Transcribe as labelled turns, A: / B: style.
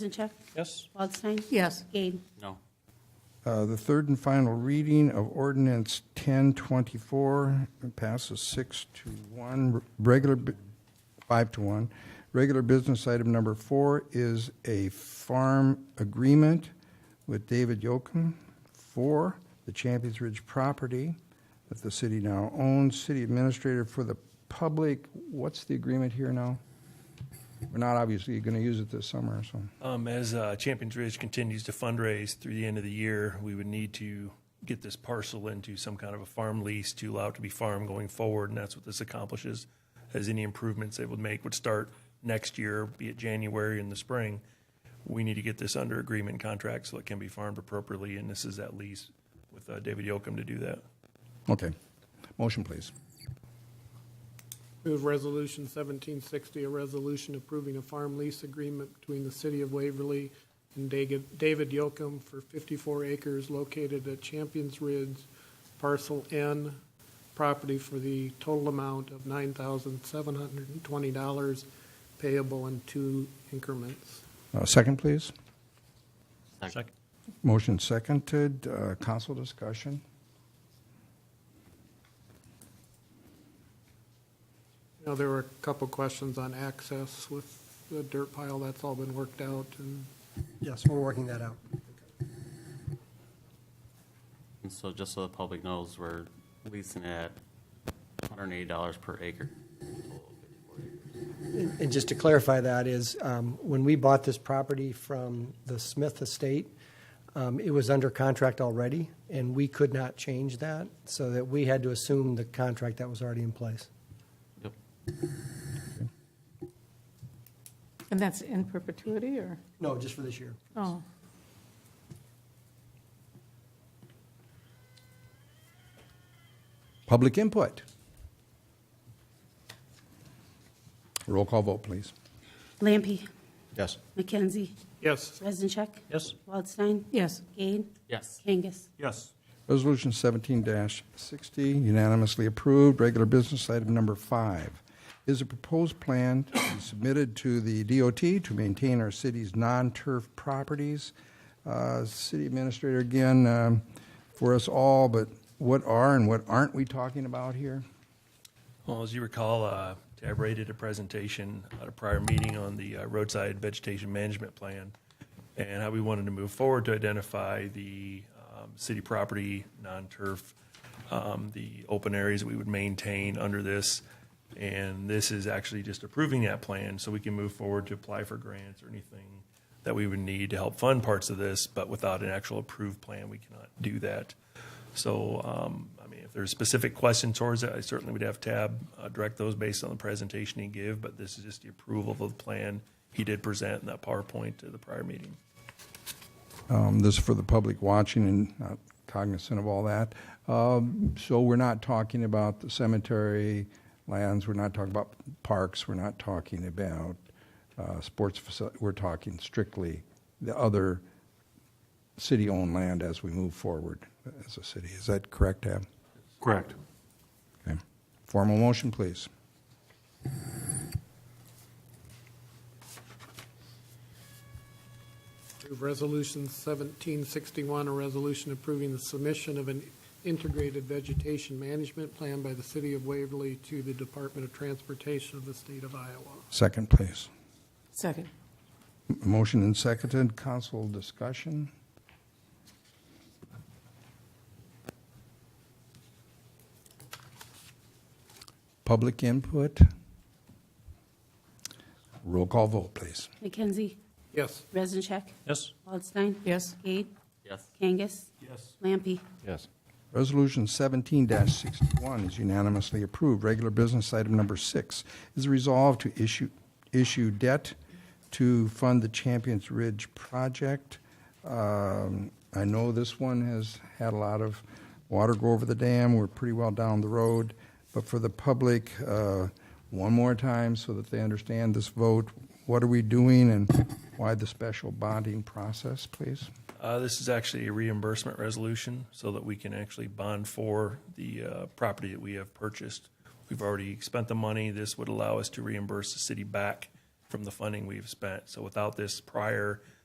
A: Bezincheck?
B: Yes?
A: Waldstein?
C: Yes.
A: Gade?
B: No.
D: Uh, The third and final reading of ordinance 1024 passes six to one, regular, bu- five to one. Regular business item number four is a farm agreement with David Yocum for the Champions Ridge property that the city now owns. City administrator for the public, what's the agreement here now? We're not obviously going to use it this summer, so.
E: Um, as uh, Champions Ridge continues to fundraise through the end of the year, we would need to get this parcel into some kind of a farm lease to allow it to be farmed going forward, and that's what this accomplishes. As any improvements they would make would start next year, be it January in the spring. We need to get this under agreement contract so it can be farmed appropriately, and this is that lease with uh, David Yoakum to do that.
D: Okay. Motion, please.
F: Move Resolution 1760, a resolution approving a farm lease agreement between the City of Waverly and Dag- David Yocum for 54 acres located at Champions Ridge, Parcel N, property for the total amount of $9,720 payable in two increments.
D: Uh, Second, please.
B: Second.
D: Motion seconded. Uh, Council discussion?
F: Now, there were a couple questions on access with the dirt pile. That's all been worked out and
G: Yes, we're working that out.
B: And so just so the public knows, we're leasing at $180 per acre.
G: And just to clarify that is, um, when we bought this property from the Smith Estate, um, it was under contract already, and we could not change that, so that we had to assume the contract that was already in place.
B: Yep.
C: And that's in perpetuity, or?
G: No, just for this year.
C: Oh,
D: Public input? Roll call vote, please.
A: Lampe?
D: Yes.
A: McKenzie?
F: yes,
A: Bezincheck?
B: Yes?
A: Waldstein?
C: yes.
A: Gade?
B: Yes.
A: Kangas?
E: Yes.
D: Resolution 17-60 unanimously approved. Regular business item number five is a proposed plan to be submitted to the DOT to maintain our city's non-turf properties. Uh, City Administrator, again, um, for us all, but what are and what aren't we talking about here?
E: Well, as you recall, uh, Tabray did a presentation at a prior meeting on the uh, roadside vegetation management plan and how we wanted to move forward to identify the um, city property, non-turf, um, the open areas that we would maintain under this. And this is actually just approving that plan so we can move forward to apply for grants or anything that we would need to help fund parts of this, but without an actual approved plan, we cannot do that. So, um, I mean, if there's specific questions towards it, I certainly would have Tab uh, direct those based on the presentation he gave, but this is just the approval of the plan he did present in that PowerPoint to the prior meeting.
D: Um, This is for the public watching and not cognizant of all that. Um, So we're not talking about the cemetery lands, we're not talking about parks, we're not talking about uh, sports facilities, we're talking strictly the other city-owned land as we move forward as a city. Is that correct, Ab?
B: Correct.
D: Okay. Formal motion, please.
F: Approve Resolution 1761, a resolution approving the submission of an integrated vegetation management plan by the City of Waverly to the Department of Transportation of the State of Iowa.
D: Second, please.
C: Second.
D: M- Motion and seconded, council discussion. Public input. Roll call vote, please.
A: McKenzie?
F: Yes,
A: Bezincheck?
B: Yes?
A: Waldstein?
C: Yes.
A: Gade?
B: Yes.
A: Kangas?
E: Yes.
A: Lampe?
B: Yes.
D: Resolution 17-61 is unanimously approved. Regular business item number six is resolved to issue, issue debt to fund the Champions Ridge project. Um, I know this one has had a lot of water go over the dam. We're pretty well down the road. But for the public, uh, one more time so that they understand this vote, what are we doing and why the special bonding process, please?
E: Uh, This is actually a reimbursement resolution so that we can actually bond for the uh, property that we have purchased. We've already spent the money. This would allow us to reimburse the city back from the funding we've spent. So without this prior